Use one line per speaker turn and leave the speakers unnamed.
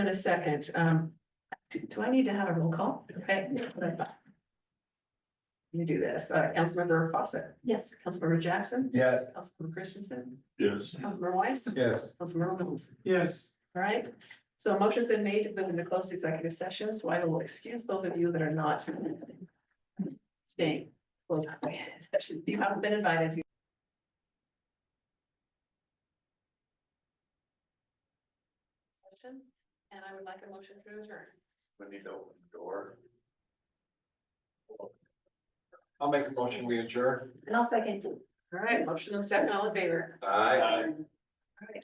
in a second. Um, do, do I need to have a roll call? Okay. You do this. Uh, Councilmember Fawcett. Yes. Councilmember Jackson.
Yes.
Councilmember Christensen.
Yes.
Councilmember Weiss.
Yes.
Councilmember Mills.
Yes.
All right, so a motion's been made to move into closed executive session, so I will excuse those of you that are not staying. closed executive session. You haven't been invited. You And I would like a motion to adjourn.
We need to open the door.
I'll make a motion, we adjourn.
And I'll second.
All right, motion and second, all in favor.
Aye.
Aye.